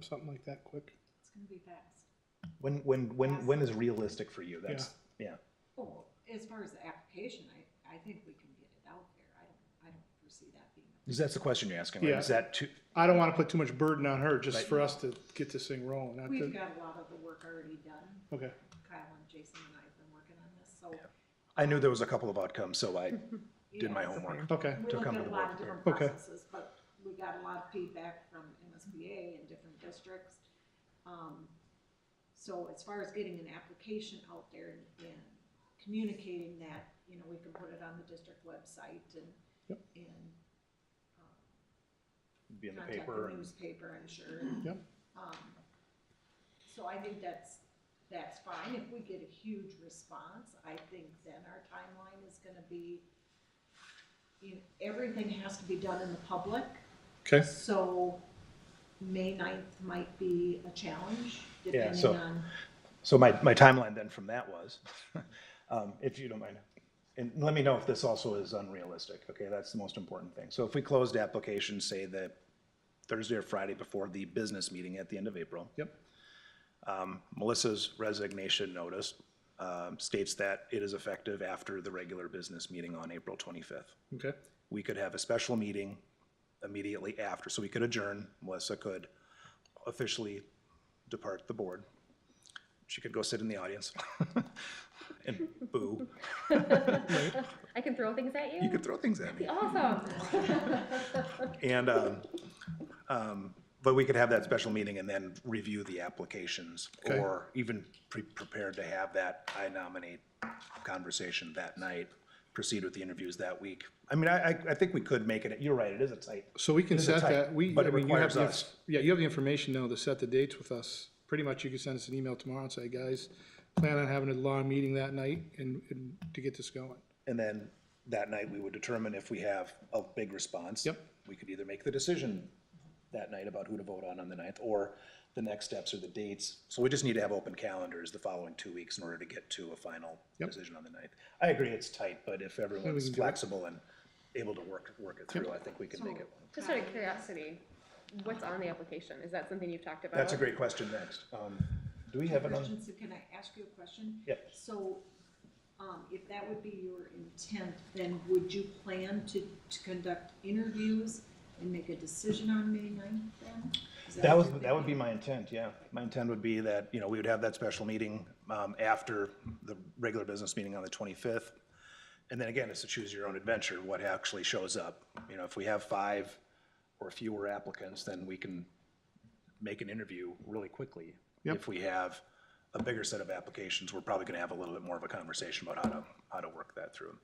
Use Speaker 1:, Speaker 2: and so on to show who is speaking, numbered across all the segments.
Speaker 1: or something like that quick?
Speaker 2: It's gonna be fast.
Speaker 3: When when when when is realistic for you? That's yeah.
Speaker 2: Oh, as far as the application, I, I think we can get it out there. I don't, I don't foresee that being.
Speaker 3: Is That's the question you're asking, right? Is
Speaker 1: Yeah.
Speaker 3: that too?
Speaker 1: I don't wanna put too much burden on her, just
Speaker 3: Right.
Speaker 1: for us to get this thing rolling, not
Speaker 2: We've
Speaker 1: to,
Speaker 2: got a lot of the work already done.
Speaker 1: okay.
Speaker 2: Kyle and Jason and I have been working on this, so.
Speaker 3: I knew there was a couple of outcomes, so I
Speaker 2: you
Speaker 3: did my
Speaker 2: know,
Speaker 3: homework.
Speaker 1: Okay,
Speaker 2: We
Speaker 3: to
Speaker 2: looked
Speaker 3: come
Speaker 2: at
Speaker 3: to
Speaker 2: a
Speaker 3: the
Speaker 2: lot
Speaker 3: board
Speaker 2: of different
Speaker 1: Okay.
Speaker 2: processes, but we got a lot of feedback from MSBA and different districts. Um, So as far as getting an application out there and- and communicating that, you know, we can put it on the district website and,
Speaker 1: Yep.
Speaker 2: and
Speaker 3: Be in the
Speaker 2: contact
Speaker 3: paper
Speaker 2: the
Speaker 3: and
Speaker 2: newspaper, I'm sure. and,
Speaker 1: Yep.
Speaker 2: um, So I think that's, that's fine. If we get a huge response, I think then our timeline is gonna be, you know, everything has to be done in the public,
Speaker 1: okay,
Speaker 2: so May 9th might be a challenge,
Speaker 3: Yeah,
Speaker 2: depending
Speaker 3: so-
Speaker 2: on.
Speaker 3: So my, my timeline then from that was, um, if you don't mind, and let me know if this also is unrealistic, okay? That's the most important thing. So if we closed applications, say the Thursday or Friday before the business meeting at the end of April,
Speaker 1: yep,
Speaker 3: Melissa's resignation notice um, states that it is effective after the regular business meeting on April 25th.
Speaker 1: okay,
Speaker 3: We could have a special meeting immediately after, so we could adjourn. Melissa could officially depart the board. She could go sit in the audience and boo.
Speaker 4: I can throw things at you?
Speaker 3: You could throw things at me.
Speaker 4: Awesome.
Speaker 3: And, um, um, but we could have that special meeting and then review the applications.
Speaker 1: Okay.
Speaker 3: Or even pre- prepared to have that I nominate conversation that night, proceed with the interviews that week. I mean, I, I, I think we could make it, you're right, it is a tight,
Speaker 1: so we can
Speaker 3: This is
Speaker 1: set
Speaker 3: tight,
Speaker 1: that, we,
Speaker 3: but
Speaker 1: I
Speaker 3: it
Speaker 1: mean, you have
Speaker 3: requires
Speaker 1: the,
Speaker 3: us.
Speaker 1: yeah, you have the information now to set the dates with us. Pretty much you can send us an email tomorrow and say, guys, plan on having a long meeting that night and, and to get this going.
Speaker 3: And then that night, we would determine if we have a big response.
Speaker 1: Yep.
Speaker 3: We could either make the decision that night about who to vote on on the ninth, or the next steps or the dates. So we just need to have open calendars the following two weeks in order to get to a final
Speaker 1: Yep.
Speaker 3: decision on the ninth. I agree, it's tight, but if everyone's
Speaker 1: can do it.
Speaker 3: flexible and able to work, work it through, I think we can make it. work.
Speaker 4: Just out of curiosity, what's on the application? Is that something you've talked about?
Speaker 3: That's a great question next. Um, do we have another?
Speaker 2: Christensen, can I ask you a question?
Speaker 3: Yep.
Speaker 2: So, um, if that would be your intent, then would you plan to, to conduct interviews and make a decision on May ninth then? Is
Speaker 3: That was,
Speaker 2: what you're
Speaker 3: that would be my intent, yeah. My intent would be that, you know, we would have that special meeting um, after the regular business meeting on the 25th. And then again, it's to choose your own adventure, what actually shows up. You know, if we have five or fewer applicants, then we can make an interview really quickly.
Speaker 1: Yep.
Speaker 3: If we have a bigger set of applications, we're probably going to have a little bit more of a conversation about how to, how to work that through.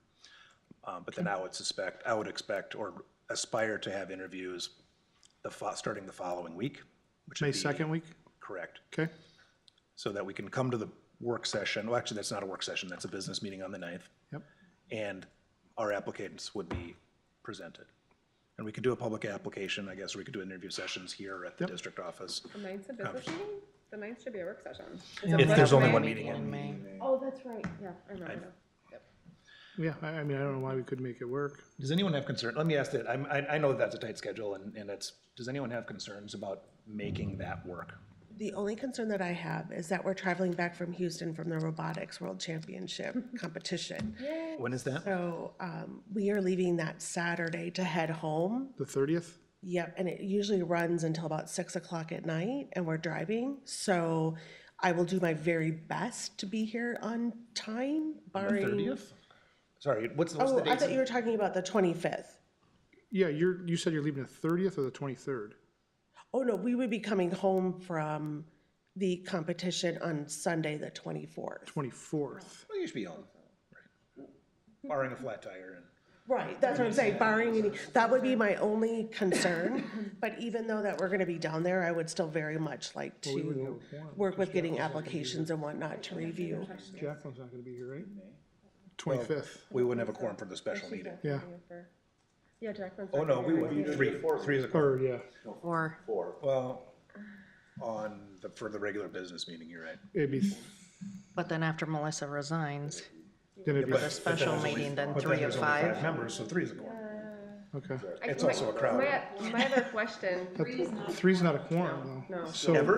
Speaker 3: Um, But then I would suspect, I would expect or aspire to have interviews the, fo- starting the following week. which would
Speaker 1: May
Speaker 3: be-
Speaker 1: second week,
Speaker 3: Correct.
Speaker 1: okay?
Speaker 3: So that we can come to the work session, well, actually, that's not a work session, that's a business meeting on the 9th.
Speaker 1: Yep.
Speaker 3: And our applicants would be presented. And we could do a public application, I guess, or we could do interview sessions here at the
Speaker 1: Yep.
Speaker 3: district office.
Speaker 4: The ninth's a business meeting? The ninth should be a work session.
Speaker 3: If there's only
Speaker 5: May
Speaker 3: one
Speaker 5: meeting
Speaker 3: meeting in
Speaker 5: in
Speaker 3: May.
Speaker 4: Oh, that's right. Yeah, I remember now.
Speaker 1: Yeah, I, I mean, I don't know why we couldn't make it work.
Speaker 3: Does anyone have concern, let me ask that, I'm, I, I know that's a tight schedule and, and it's, does anyone have concerns about making that work?
Speaker 5: The only concern that I have is that we're traveling back from Houston from the Robotics World Championship competition.
Speaker 3: When is that?
Speaker 5: So um, we are leaving that Saturday to head home.
Speaker 1: The thirtieth?
Speaker 5: Yep, and it usually runs until about six o'clock at night, and we're driving. So I will do my very best to be here on time,
Speaker 3: The
Speaker 5: barring.
Speaker 3: 30th? Sorry, what's, what's the
Speaker 5: Oh,
Speaker 3: date?
Speaker 5: I thought you were talking about the twenty-fifth.
Speaker 1: Yeah, you're, you said you're leaving the thirtieth or the twenty-third?
Speaker 5: Oh, no, we would be coming home from the competition on Sunday, the twenty-fourth.
Speaker 1: Twenty-fourth.
Speaker 3: Well, you should be home. Right. Barring a flat tire and.
Speaker 5: Right, that's what I'm saying, barring any, that would be my only concern, but even though that we're gonna be down there, I would still very much like to work with getting applications and whatnot to review.
Speaker 1: Jacqueline's not gonna be here, right? Twenty-fifth,
Speaker 3: We wouldn't have a quorum for the special meeting.
Speaker 1: yeah,
Speaker 4: Yeah, Jacqueline's.
Speaker 3: Oh,
Speaker 4: not
Speaker 3: no,
Speaker 4: here.
Speaker 3: we would, three, three is a quorum.
Speaker 1: or, yeah,
Speaker 6: Or,
Speaker 3: Well, on the, for the regular business meeting, you're right.
Speaker 1: it'd be,
Speaker 6: but then after Melissa resigns,
Speaker 1: then it'd be,
Speaker 6: the special meeting, then
Speaker 3: But
Speaker 6: three
Speaker 3: there's
Speaker 6: of
Speaker 3: only
Speaker 6: five.
Speaker 3: Members, so three is a quorum.
Speaker 4: Okay.
Speaker 7: I-
Speaker 1: It's
Speaker 7: my-
Speaker 1: also a crowd.
Speaker 7: My, my other question,
Speaker 3: Three's not.
Speaker 4: Three's not a quorum, though.
Speaker 7: No.
Speaker 4: So-
Speaker 1: Ever?